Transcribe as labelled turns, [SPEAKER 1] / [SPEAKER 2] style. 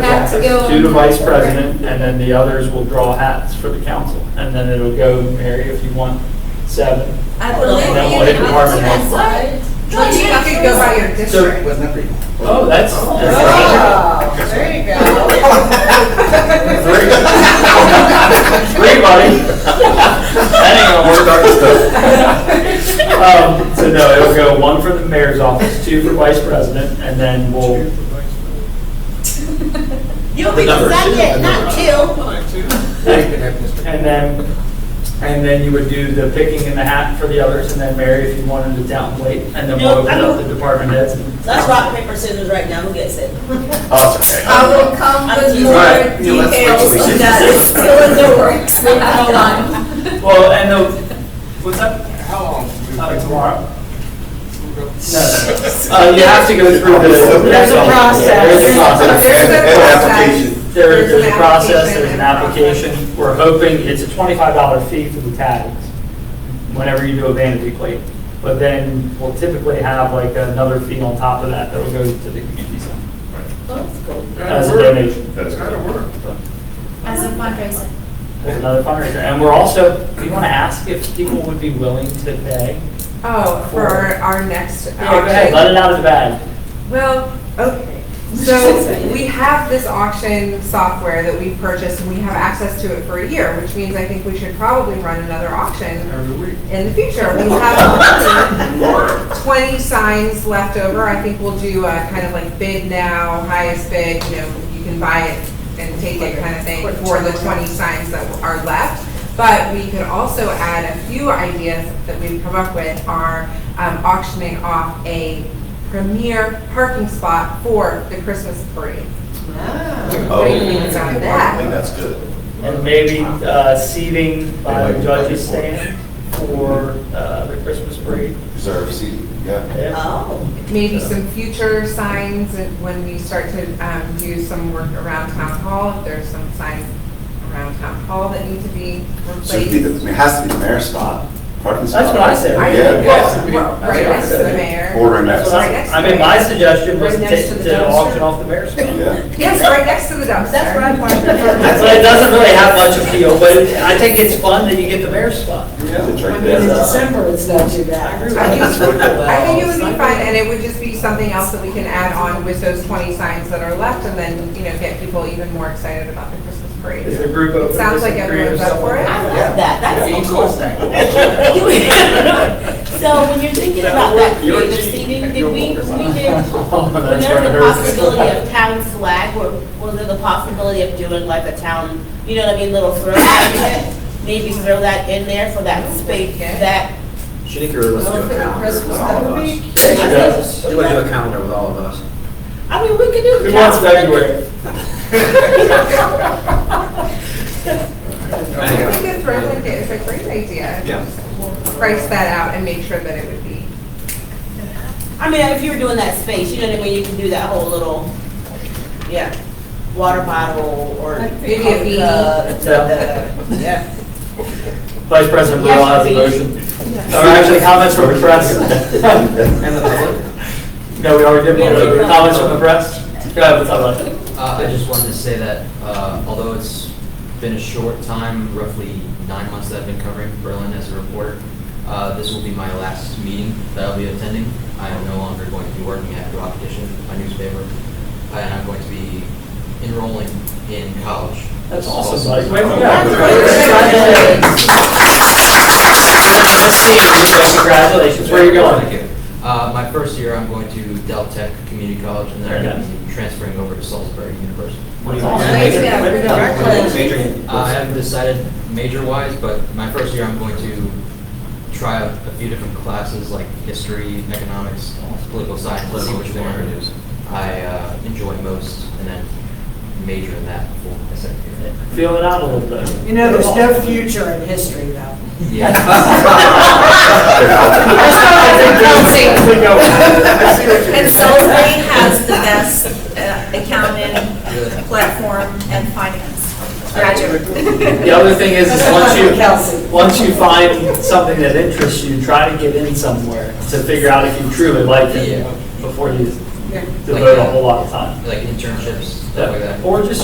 [SPEAKER 1] hats
[SPEAKER 2] go
[SPEAKER 1] to the
[SPEAKER 2] on-
[SPEAKER 1] vice president, and then the others will draw hats for the council. And then it'll go, Mary, if you want, seven.
[SPEAKER 2] I
[SPEAKER 1] And then we'll hit department heads.
[SPEAKER 2] Well, you could go by your district.
[SPEAKER 3] Wasn't that pretty?
[SPEAKER 1] Oh, that's, that's
[SPEAKER 2] Oh, there you go.
[SPEAKER 1] three. Three, buddy. That ain't gonna work. Um, So no, it'll go one for the mayor's office, two for vice president, and then we'll,
[SPEAKER 2] You'll be
[SPEAKER 3] Number two,
[SPEAKER 2] second, not two.
[SPEAKER 1] and then, and then you would do the picking and the hat for the others, and then Mary, if you wanted to down plate, and then we'll
[SPEAKER 4] No,
[SPEAKER 1] open up
[SPEAKER 4] I don't-
[SPEAKER 1] the department heads. and-
[SPEAKER 4] Let's rock, paper, scissors right now, who gets it?
[SPEAKER 3] Oh, it's okay.
[SPEAKER 2] I will come with more
[SPEAKER 3] Alright, yeah, let's wait till
[SPEAKER 2] details
[SPEAKER 3] we see
[SPEAKER 2] of that,
[SPEAKER 3] this.
[SPEAKER 2] it's still in the works, hold on.
[SPEAKER 1] Well, and the, what's up,
[SPEAKER 3] How long? do we-
[SPEAKER 1] uh, tomorrow? No, no, no. Uh, you have to go through the.
[SPEAKER 3] There's a
[SPEAKER 2] process.
[SPEAKER 1] There's a process.
[SPEAKER 3] And application.
[SPEAKER 1] There,
[SPEAKER 2] There's
[SPEAKER 1] there's
[SPEAKER 2] an
[SPEAKER 1] a process,
[SPEAKER 2] application
[SPEAKER 1] there's an
[SPEAKER 2] and a process.
[SPEAKER 1] application. We're hoping, it's a twenty-five dollar fee for the tags, whenever you do a vanity plate. But then we'll typically have like another fee on top of that that'll go to the community center as a donation,
[SPEAKER 3] That's kind of work.
[SPEAKER 5] As a fundraiser.
[SPEAKER 1] as another fundraiser. And we're also, we want to ask if people would be willing to pay.
[SPEAKER 2] Oh, for our next.
[SPEAKER 1] Yeah, go ahead, let it out of the bag.
[SPEAKER 2] Well, okay, so we have this auction software that we purchased, and we have access to it for a year, which means I think we should probably run another auction
[SPEAKER 1] Every week.
[SPEAKER 2] in the future. We have twenty signs left over, I think we'll do a kind of like bid now, highest bid, you know, you can buy it and take it kind of thing for the twenty signs that are left. But we could also add a few ideas that we've come up with are um, auctioning off a premier parking spot for the Christmas parade.
[SPEAKER 3] Oh.
[SPEAKER 2] What do you think about that?
[SPEAKER 3] I think that's good.
[SPEAKER 1] And maybe uh, seating by the judges stand for uh, the Christmas parade.
[SPEAKER 3] Reserve seat, yeah.
[SPEAKER 1] Yeah.
[SPEAKER 4] Oh.
[SPEAKER 2] maybe some future signs and when we start to um, do some work around town hall, if there's some signs around town hall that need to be
[SPEAKER 3] So it'd be the, I
[SPEAKER 2] replaced.
[SPEAKER 3] mean, it has to be the mayor's spot, parking spot.
[SPEAKER 1] That's what I said.
[SPEAKER 2] I-
[SPEAKER 3] Yeah,
[SPEAKER 2] well,
[SPEAKER 3] yeah.
[SPEAKER 2] well, Right next to the mayor.
[SPEAKER 3] Ordering that.
[SPEAKER 1] That's what I-
[SPEAKER 3] side.
[SPEAKER 1] I mean, my suggestion was
[SPEAKER 2] Right
[SPEAKER 1] to
[SPEAKER 2] next to
[SPEAKER 1] take- to
[SPEAKER 2] the dumpster.
[SPEAKER 1] auction off the mayor's spot.
[SPEAKER 3] Yeah.
[SPEAKER 2] Yes, right next to the dumpster.
[SPEAKER 4] That's what I
[SPEAKER 1] So
[SPEAKER 4] wanted.
[SPEAKER 1] it doesn't really have much appeal, but I think it's fun that you get the mayor's spot.
[SPEAKER 3] It's right
[SPEAKER 4] In
[SPEAKER 3] there.
[SPEAKER 4] December, it's not too bad.
[SPEAKER 2] I think- I think it would
[SPEAKER 4] Well,
[SPEAKER 2] be fun, and it would just be something else that we can add on with those 20 signs that are left, and then, you know, get people even more excited about the Christmas
[SPEAKER 1] Is
[SPEAKER 2] parade.
[SPEAKER 1] the group open?
[SPEAKER 2] It sounds
[SPEAKER 1] to
[SPEAKER 2] like
[SPEAKER 1] some
[SPEAKER 2] everyone's up for it.
[SPEAKER 1] creative
[SPEAKER 4] I
[SPEAKER 1] stuff?
[SPEAKER 4] love that, that's so cool. So when you're thinking about that creative seating, did we, we did, was
[SPEAKER 1] That's
[SPEAKER 4] there
[SPEAKER 1] what I
[SPEAKER 4] the
[SPEAKER 1] heard.
[SPEAKER 4] possibility of town flag, or was there the possibility of doing like a town, you know what I mean, little throwback? event? Maybe throw that in there for that space, that.
[SPEAKER 6] She think you're
[SPEAKER 2] Oh,
[SPEAKER 6] listening to a calendar with all of us.
[SPEAKER 1] Yes.
[SPEAKER 6] She went to a calendar with all of us.
[SPEAKER 4] I mean, we could do.
[SPEAKER 1] Who wants February?
[SPEAKER 2] I think it's really, it's a great idea.
[SPEAKER 6] Yeah.
[SPEAKER 2] We'll Price that out and make sure that it would be.
[SPEAKER 4] I mean, if you were doing that space, you know what I mean, you can do that whole little, yeah, water bottle or.
[SPEAKER 2] Maybe a beanie.
[SPEAKER 4] Uh, the- Yeah.
[SPEAKER 1] Vice President Burrell has a motion. Or actually, comments from the press.
[SPEAKER 6] And the public?
[SPEAKER 1] No, we already did one. Comments from the press? Go ahead, what's up, bud?
[SPEAKER 7] Uh, I just wanted to say that uh, although it's been a short time, roughly nine months that I've been covering Berlin as a reporter, uh, this will be my last meeting that I'll be attending. I am no longer going to be working at Rock Edition, my newspaper, and I'm going to be enrolling in college.
[SPEAKER 1] That's
[SPEAKER 7] This
[SPEAKER 1] awesome,
[SPEAKER 7] is
[SPEAKER 1] buddy.
[SPEAKER 7] also-
[SPEAKER 1] Way to go. Let's see, congratulations. Where are you
[SPEAKER 7] Thank
[SPEAKER 1] going?
[SPEAKER 7] you. Uh, My first year, I'm going to Deltech Community College, and then I'm going to be transferring over to Salisbury University.
[SPEAKER 1] That's
[SPEAKER 2] Way to
[SPEAKER 1] awesome.
[SPEAKER 2] go.
[SPEAKER 1] Way to go.
[SPEAKER 6] Adrian.
[SPEAKER 7] Uh, I haven't decided major-wise, but my first year, I'm going to try a a few different classes, like history, economics, political science, let's see which one I uh, enjoy most, and then major in that for my second year.
[SPEAKER 1] Feel it out a little bit.
[SPEAKER 8] You know, there's no future in history, though.
[SPEAKER 5] And Salisbury has the best uh, accounting
[SPEAKER 7] Yeah.
[SPEAKER 5] platform and finance graduate.
[SPEAKER 1] The other thing is, is once
[SPEAKER 8] Kelsey.
[SPEAKER 1] you, once you find something that interests you, try to get in somewhere to figure out if you truly like it
[SPEAKER 7] Yeah.
[SPEAKER 1] before you
[SPEAKER 7] Like,
[SPEAKER 1] devote a
[SPEAKER 7] uh,
[SPEAKER 1] whole lot of time.
[SPEAKER 7] Like internships, stuff like that.
[SPEAKER 1] Or just